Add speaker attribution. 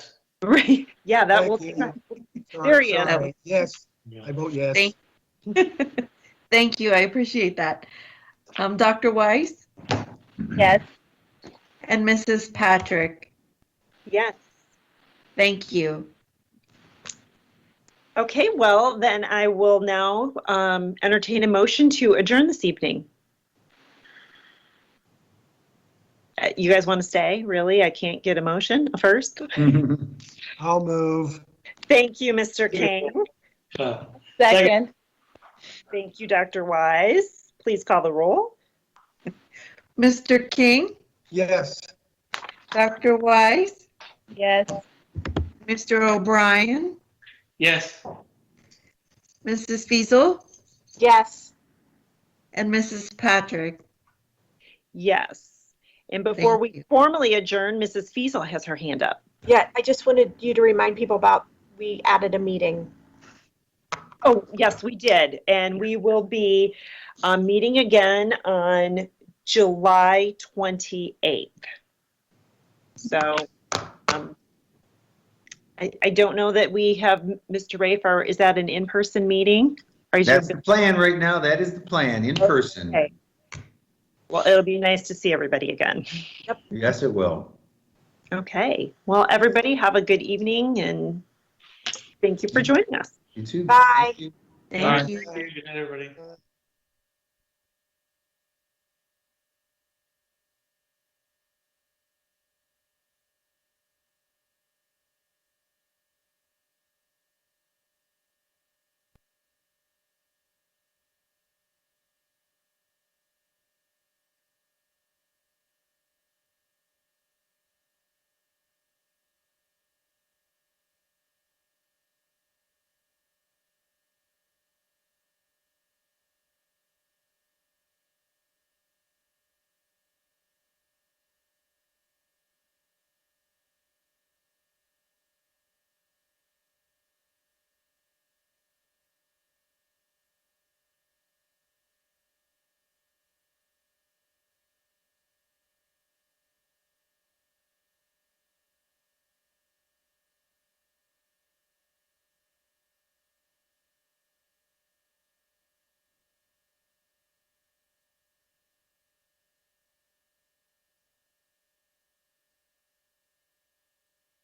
Speaker 1: Right, yeah, that
Speaker 2: Thank
Speaker 1: will,
Speaker 2: you. Sorry,
Speaker 1: There he is.
Speaker 2: sorry. Yes,
Speaker 3: Yeah.
Speaker 2: I vote yes.
Speaker 4: Thank- Thank you, I appreciate that. Um, Dr. Weiss
Speaker 5: Yes.
Speaker 4: and Mrs. Patrick,
Speaker 1: yes.
Speaker 4: thank you.
Speaker 1: Okay, well, then I will now um, entertain a motion to adjourn this evening. Uh, You guys want to stay? Really? I can't get a motion first.
Speaker 2: I'll move.
Speaker 1: Thank you, Mr. Kane.
Speaker 3: Uh,
Speaker 5: Second.
Speaker 1: Thank you, Dr. Wise. Please call the roll.
Speaker 4: Mr. King,
Speaker 2: Yes.
Speaker 4: Dr. Weiss,
Speaker 5: Yes.
Speaker 4: Mr. O'Brien,
Speaker 3: Yes.
Speaker 4: Mrs. Fiesel,
Speaker 5: Yes.
Speaker 4: and Mrs. Patrick.
Speaker 1: Yes. And before
Speaker 4: Thank
Speaker 1: we
Speaker 4: you.
Speaker 1: formally adjourn, Mrs. Fiesel has her hand up.
Speaker 6: Yeah, I just wanted you to remind people about, we added a meeting.
Speaker 1: Oh, yes, we did. And we will be uh, meeting again on July 28th. So um, I I don't know that we have, Mr. Rafe, or is that an in-person meeting? Or is your-
Speaker 7: That's the plan right now. That is the plan, in person.
Speaker 1: Okay. Well, it'll be nice to see everybody again.
Speaker 7: Yes, it will.
Speaker 1: Okay. Well, everybody have a good evening and thank you for joining us.
Speaker 7: You too.
Speaker 6: Bye.
Speaker 7: Thank you.
Speaker 4: Thank you.
Speaker 3: Good night, everybody.